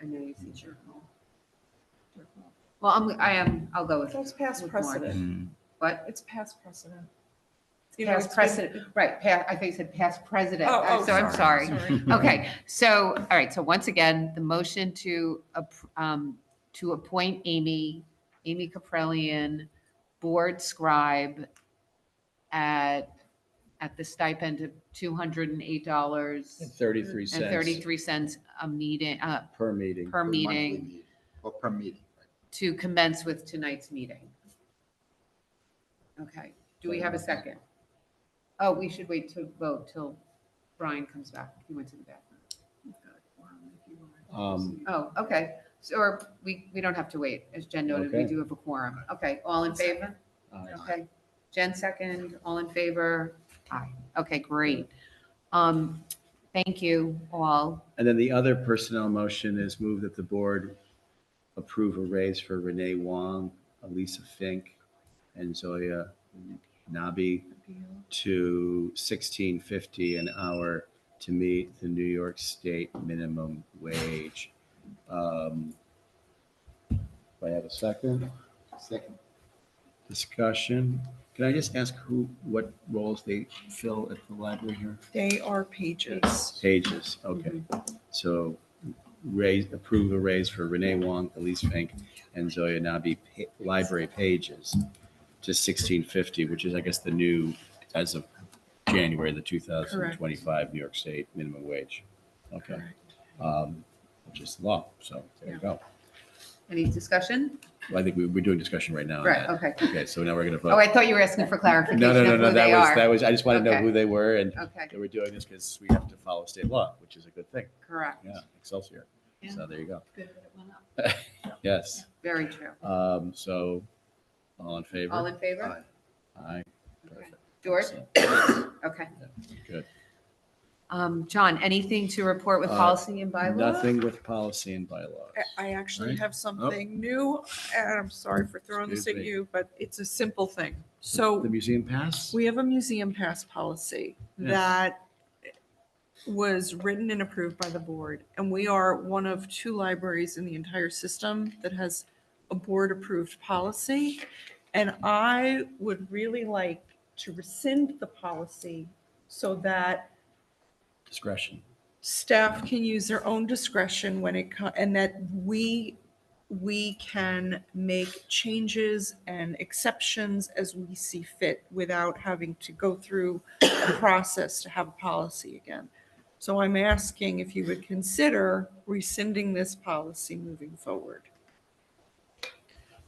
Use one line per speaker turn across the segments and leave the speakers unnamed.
I know you see Jerkle. Jerkle. Well, I'm, I am, I'll go with
So it's past
With more.
precedent.
Mm.
what?
It's past precedent. You know,
Past
it's been-
precedent, right, pa- I think you said past president,
Oh,
Uh,
oh,
so I'm
sorry,
sorry. Okay, so, all right, so once again, the motion to, ap- um, to appoint Amy, Amy Caprellian, board scribe at, at the stipend of two hundred and eight dollars
Thirty-three
and
cents
thirty-three cents a meeting, uh,
per meeting.
per
monthly
meeting
Or per meeting. right?
to commence with tonight's meeting. Okay, do we have a second? Oh, we should wait to vote till Brian comes back. He went to the bathroom.
Um,
Oh, okay. So, or we, we don't have to wait. As Jen noted, we
Okay.
do have a quorum. Okay, all in favor?
I-
Okay. Jen second, all in favor? Aye. Okay, great. Um, thank you all.
And then the other personnel motion is move that the board approve a raise for Renee Wong, Elisa Fink, and Zoya Nabi to sixteen fifty an hour to meet the New York State minimum wage. Um, Do I have a second?
Second,
Discussion. Can I just ask who, what roles they fill at the library here?
They are pages.
Pages, okay. So raise, approve a raise for Renee Wong, Elise Fink, and Zoya Nabi, pa- library pages to sixteen fifty, which is, I guess, the new, as of January, the two thousand twenty-five New York State minimum wage. Okay. Um, Which is law, so there you go.
Any discussion?
Well, I think we, we're doing discussion right now. on
Right,
that.
okay.
Okay, so now we're gonna vote.
Oh, I thought you were asking for clarification
No, no, no,
of
no,
who
that
they
was, that
are.
was, I just wanted to know
Okay.
who they were and
Okay,
they were doing this because we have to follow state law, which is a good thing.
correct.
Yeah, Excelsior. So there you go.
Good that it went up.
Yes.
Very true.
Um, so all in favor?
All in favor?
Aye.
Okay.
Perfect.
George?
So,
Okay.
Good.
Um, John, anything to report with
Uh,
policy and bylaw?
Nothing with policy and bylaws.
I- I actually
Right. Oh.
have something new, and I'm sorry for throwing this at
Excuse me.
you, but it's a simple thing.
The
So
museum pass?
we have a museum pass policy
Yes.
that was written and approved by the board, and we are one of two libraries in the entire system that has a board-approved policy. And I would really like to rescind the policy so that
Discretion.
staff can use their own discretion when it comes, and that we, we can make changes and exceptions as we see fit without having to go through a process to have a policy again. So I'm asking if you would consider rescinding this policy moving forward.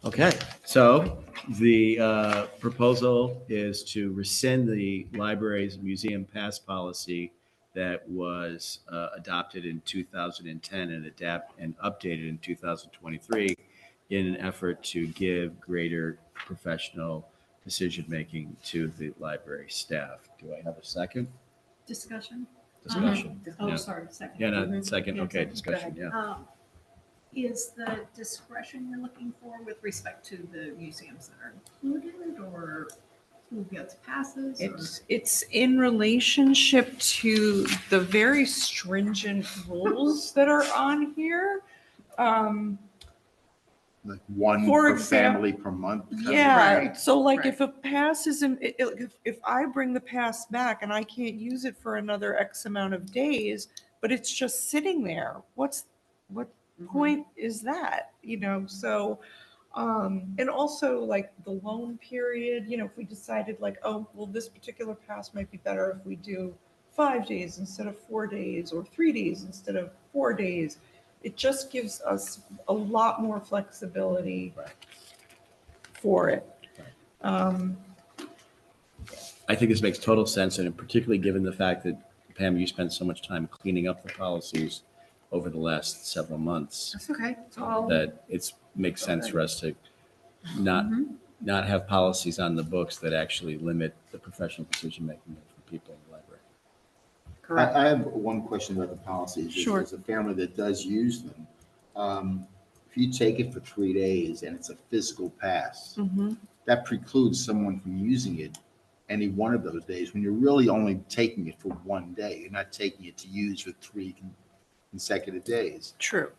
Okay, so the uh, proposal is to rescind the library's museum pass policy that was uh, adopted in 2010 and adapt and updated in 2023 in an effort to give greater professional decision-making to the library staff. Do I have a second
discussion?
discussion?
Oh,
Yeah.
sorry, second.
Yeah, no, second,
Yeah,
okay,
second.
discussion, yeah.
Um, Is the discretion you're looking for with respect to the museums that are included or who gets passes? or-
It's, it's in relationship to the very stringent rules that are on here. Um,
Like one
For
per
exam-
family per month. kind of
Yeah,
Right,
so like
right.
if a pass isn't, i- i- if, if I bring the pass back and I can't use it for another X amount of days, but it's just sitting there, what's, what
Mhm.
point is that? You know, so, um, and also like the loan period, you know, if we decided like, oh, well, this particular pass might be better if we do five days instead of four days or three days instead of four days. It just gives us a lot more flexibility
Right.
for it. Um,
I think this makes total sense, and particularly given the fact that Pam, you spent so much time cleaning up the policies over the last several months,
That's okay. It's all.
that it's, makes sense for us to not,
Mhm.
not have policies on the books that actually limit the professional decision-making for people in the library.
I,
Correct.
I have one question about the policies. As-
Sure.
As a family that does use them, um, if you take it for three days and it's a physical
Mm.
pass,
Mm-hmm.
that precludes someone from using it any one of those days when you're really only taking it for one day. You're not taking it to use for three con- consecutive days.
True.